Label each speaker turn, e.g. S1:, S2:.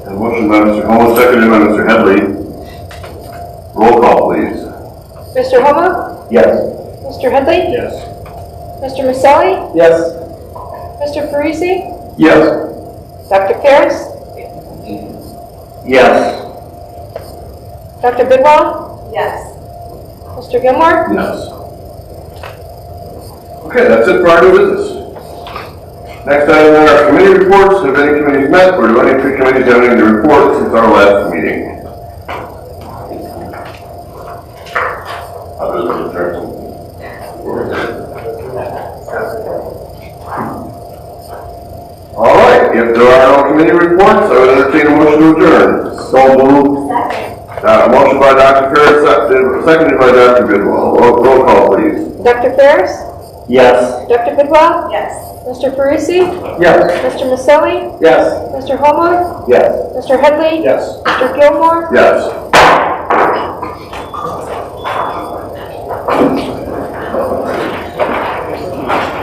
S1: A motion by Mr. Holmes, seconded by Mr. Headley. Roll call, please.
S2: Mr. Homa?
S3: Yes.
S2: Mr. Headley?
S3: Yes.
S2: Mr. Maselli?
S3: Yes.
S2: Mr. Parisi?
S3: Yes.
S2: Dr. Ferris?
S3: Yes.
S2: Dr. Bidwell? Yes. Mr. Gilmore?
S1: Yes. Okay, that's it for our new business. Next item on our committee reports, have any committees met, or do any two committees have anything to report since our last meeting? Others have All right, if there are no committee reports, I would entertain a motion to adjourn. So moved. Uh, motion by Dr. Ferris, seconded- seconded by Dr. Bidwell. Roll roll call, please.
S2: Dr. Ferris?
S3: Yes.
S2: Dr. Bidwell? Yes. Mr. Parisi?
S3: Yes.
S2: Mr. Maselli?
S3: Yes.
S2: Mr. Homa?
S3: Yes.
S2: Mr. Headley?
S3: Yes.
S2: Mr. Gilmore?
S1: Yes.